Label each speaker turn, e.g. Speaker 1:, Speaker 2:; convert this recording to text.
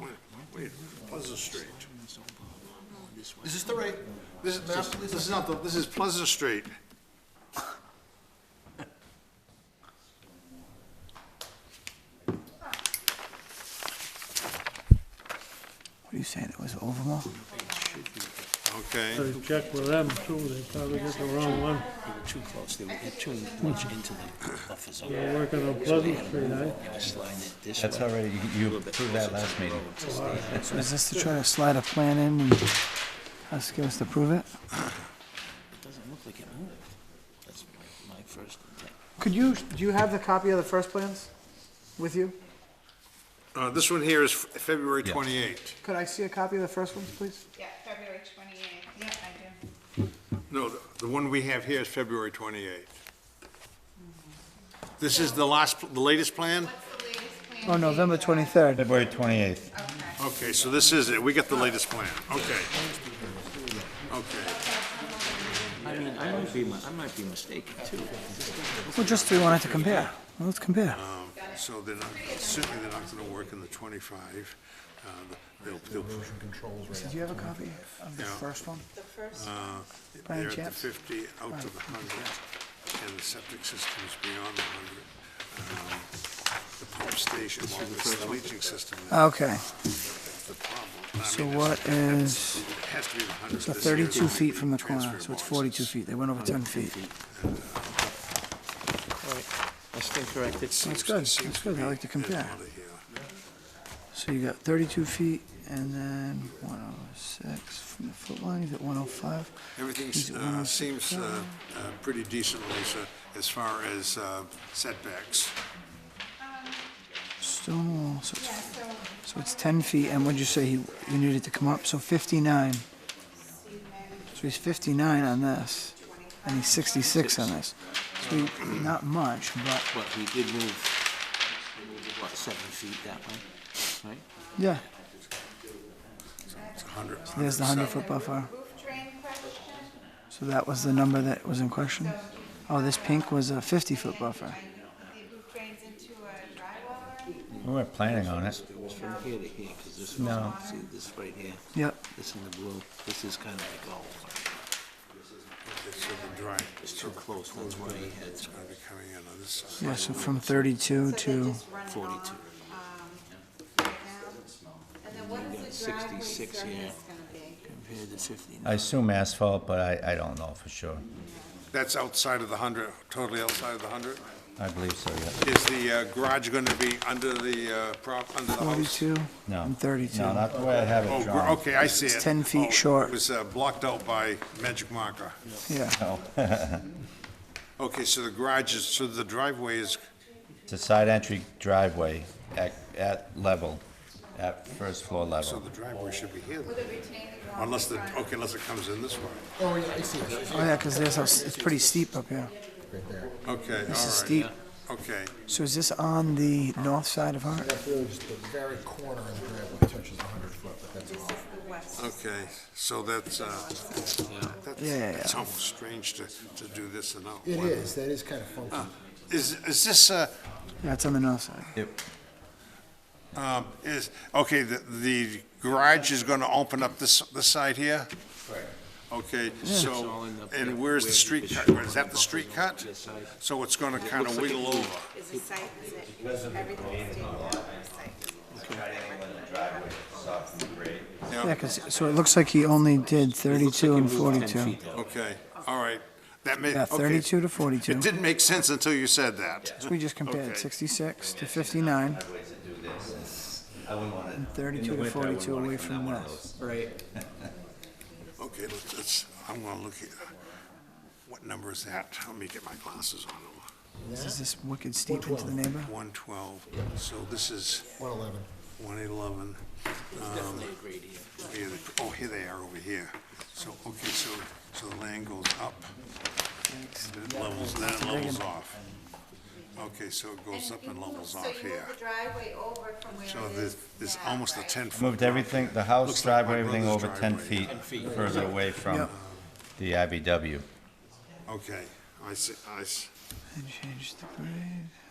Speaker 1: Wait, wait, Pleasant Street.
Speaker 2: Is this the right,
Speaker 1: This is not, this is not, the. this is Pleasant Street.
Speaker 3: What are you saying, it was Overmore?
Speaker 1: Okay,
Speaker 4: Gotta check with them too, they probably got the wrong one.
Speaker 2: they were too close, they were too much into the buffer zone.
Speaker 4: They're working on Pleasant Street, eh?
Speaker 2: They were sliding it this
Speaker 5: That's
Speaker 2: way,
Speaker 5: already, you approved
Speaker 2: closer
Speaker 5: that
Speaker 2: to
Speaker 5: last
Speaker 2: the
Speaker 5: meeting.
Speaker 2: road to stay in that
Speaker 3: So is this to try to slide a plan in and us, give us to prove it?
Speaker 2: It doesn't look like it moved. That's my, my first intent.
Speaker 6: Could you, do you have the copy of the first plans with you?
Speaker 1: uh, this one here is Fe- February twenty-eight.
Speaker 6: Could I see a copy of the first ones, please?
Speaker 7: Yeah, February twenty-eighth, yeah, I do.
Speaker 1: No, the- the one we have here is February twenty-eight. This is the last, the latest plan?
Speaker 7: What's the latest plan?
Speaker 3: Oh,
Speaker 7: date
Speaker 3: November
Speaker 7: you Uh, have?
Speaker 3: 23rd.
Speaker 5: February 28th.
Speaker 7: Okay.
Speaker 1: Okay, so this is it, we got the latest plan, okay. Okay.
Speaker 2: I mean, I might be, mi- I might be mistaken too.
Speaker 3: Well, just we wanted to compare. Well, let's compare.
Speaker 1: So they're not, certainly they're not gonna work in the twenty-five. Uh, They'll, they'll,
Speaker 3: So do you have a copy of the
Speaker 1: Yeah.
Speaker 3: first one?
Speaker 1: uh,
Speaker 3: By any
Speaker 1: they're at the
Speaker 3: chance?
Speaker 1: fifty, out to the hundred, and the septic system is beyond the hundred. Um, The pump station, well, it's the leaching system that's
Speaker 3: Ah, Okay,
Speaker 1: the problem. I
Speaker 3: Uh, so
Speaker 1: mean,
Speaker 3: what is,
Speaker 1: It has to be the hundred.
Speaker 3: so 32 feet from the corner, so it's 42 feet. They went over 10 feet.
Speaker 2: I stand corrected.
Speaker 3: That's good, that's good. I like to compare. So you got 32 feet and then 106 from the foot line, he's at 105. He's
Speaker 1: Everything
Speaker 3: at 106.
Speaker 1: seems uh, uh, pretty decent, Lisa, as far as uh, setbacks.
Speaker 3: Stonewall, so it's
Speaker 7: Yeah, so,
Speaker 3: So it's 10 feet, and what'd you say he, you needed to come up? So 59. So
Speaker 7: Steve
Speaker 3: he's 59 on this, and he's 66 on this. So he, not much, but
Speaker 2: But he did move, he moved it, what, seven feet that way, right?
Speaker 3: yeah,
Speaker 1: It's 100.
Speaker 3: there's the 100 foot buffer.
Speaker 7: roof drain question,
Speaker 3: So that was the number that was in question.
Speaker 7: so do you?
Speaker 3: Oh, this pink was a 50 foot buffer.
Speaker 7: uh, The roof drains into a drywall,
Speaker 5: We weren't planning on it.
Speaker 2: It was from here to here, because this was,
Speaker 5: No.
Speaker 2: see this right here,
Speaker 3: Yep.
Speaker 2: this in the blue, this is kind of like all,
Speaker 1: So the dry, uh,
Speaker 2: it's too close, that's why he had some
Speaker 1: I'll be coming in on this side.
Speaker 3: Yeah, so from 32
Speaker 7: so they
Speaker 3: to.
Speaker 7: just run it off,
Speaker 2: 42.
Speaker 7: um, right now. And then what is the driveway
Speaker 2: 66,
Speaker 7: surface
Speaker 2: yeah.
Speaker 7: gonna be?
Speaker 2: compared to fifty.
Speaker 5: I assume asphalt, but I, I don't know for sure.
Speaker 1: That's outside of the 100, totally outside of the 100?
Speaker 5: I believe so, yeah.
Speaker 1: Is the uh, garage going to be under the uh, prop, under the house?
Speaker 3: 42
Speaker 5: No.
Speaker 3: and 32.
Speaker 5: No, not the way I have
Speaker 1: Oh,
Speaker 5: it
Speaker 1: gr-
Speaker 5: drawn.
Speaker 1: okay, I see it.
Speaker 3: It's 10 feet
Speaker 1: Oh,
Speaker 3: short.
Speaker 1: It was uh, blocked out by magic marker.
Speaker 3: Yeah.
Speaker 5: No.
Speaker 1: Okay, so the garage is, so the driveway is,
Speaker 5: It's a side entry driveway at, at level, at first floor
Speaker 1: so
Speaker 5: level.
Speaker 1: the driveway should be here,
Speaker 7: With a retaining wall.
Speaker 1: unless the, okay, unless it comes in this way.
Speaker 3: Oh, yeah, because there's a, it's pretty steep up here.
Speaker 1: Okay, all right.
Speaker 3: This is steep.
Speaker 1: Okay,
Speaker 3: So is this on the north side of Hart?
Speaker 8: the very corner of the driveway touches a hundred foot, but that's all.
Speaker 7: This is the west.
Speaker 1: okay, so that's, uh, that's,
Speaker 3: Yeah, yeah,
Speaker 1: that's
Speaker 3: yeah.
Speaker 1: almost strange to, to do this and not.
Speaker 8: It is, that is kind of
Speaker 3: Ah,
Speaker 8: funky.
Speaker 1: Is, is this, uh,
Speaker 3: Yeah, it's on the north side.
Speaker 1: um, is, okay, the, the garage is gonna open up this, this side here? Okay, so, and where's the street cut? Is that the street cut? So it's gonna kinda wiggle over.
Speaker 7: Is the site, is it, everything's taken out of the site?
Speaker 3: Yeah, 'cause- so it looks like he only did 32 and 42.
Speaker 1: Okay, all right. That may,
Speaker 3: Yeah,
Speaker 1: okay.
Speaker 3: 32 to
Speaker 1: It
Speaker 3: 42.
Speaker 1: didn't make sense until you said that.
Speaker 3: So we just compared
Speaker 1: Okay.
Speaker 3: 66 to 59
Speaker 5: I wouldn't want
Speaker 3: and 32 to 42 away from this.
Speaker 1: Okay, let's, let's- I'm gonna look at, what number is that? Let me get my glasses on.
Speaker 3: This is this wicked steep into the neighbor.
Speaker 1: One twelve, so this is
Speaker 8: One eleven.
Speaker 1: one eleven.
Speaker 2: Definitely agreed here.
Speaker 1: Oh, here they are over here. So, okay, so, so the land goes up, then it levels, then it levels off. Okay, so it goes up and levels off
Speaker 7: So you move
Speaker 1: here.
Speaker 7: the driveway over from where it is
Speaker 1: So there's, there's
Speaker 7: now,
Speaker 1: almost a
Speaker 7: right?
Speaker 1: ten foot.
Speaker 5: Moved everything, the house
Speaker 1: Looks like my
Speaker 5: driveway, everything
Speaker 1: brother's
Speaker 5: over 10
Speaker 1: driveway.
Speaker 5: feet further away from
Speaker 3: Yep.
Speaker 5: the IBW.
Speaker 1: Okay, I see, I see.
Speaker 3: And change the grade.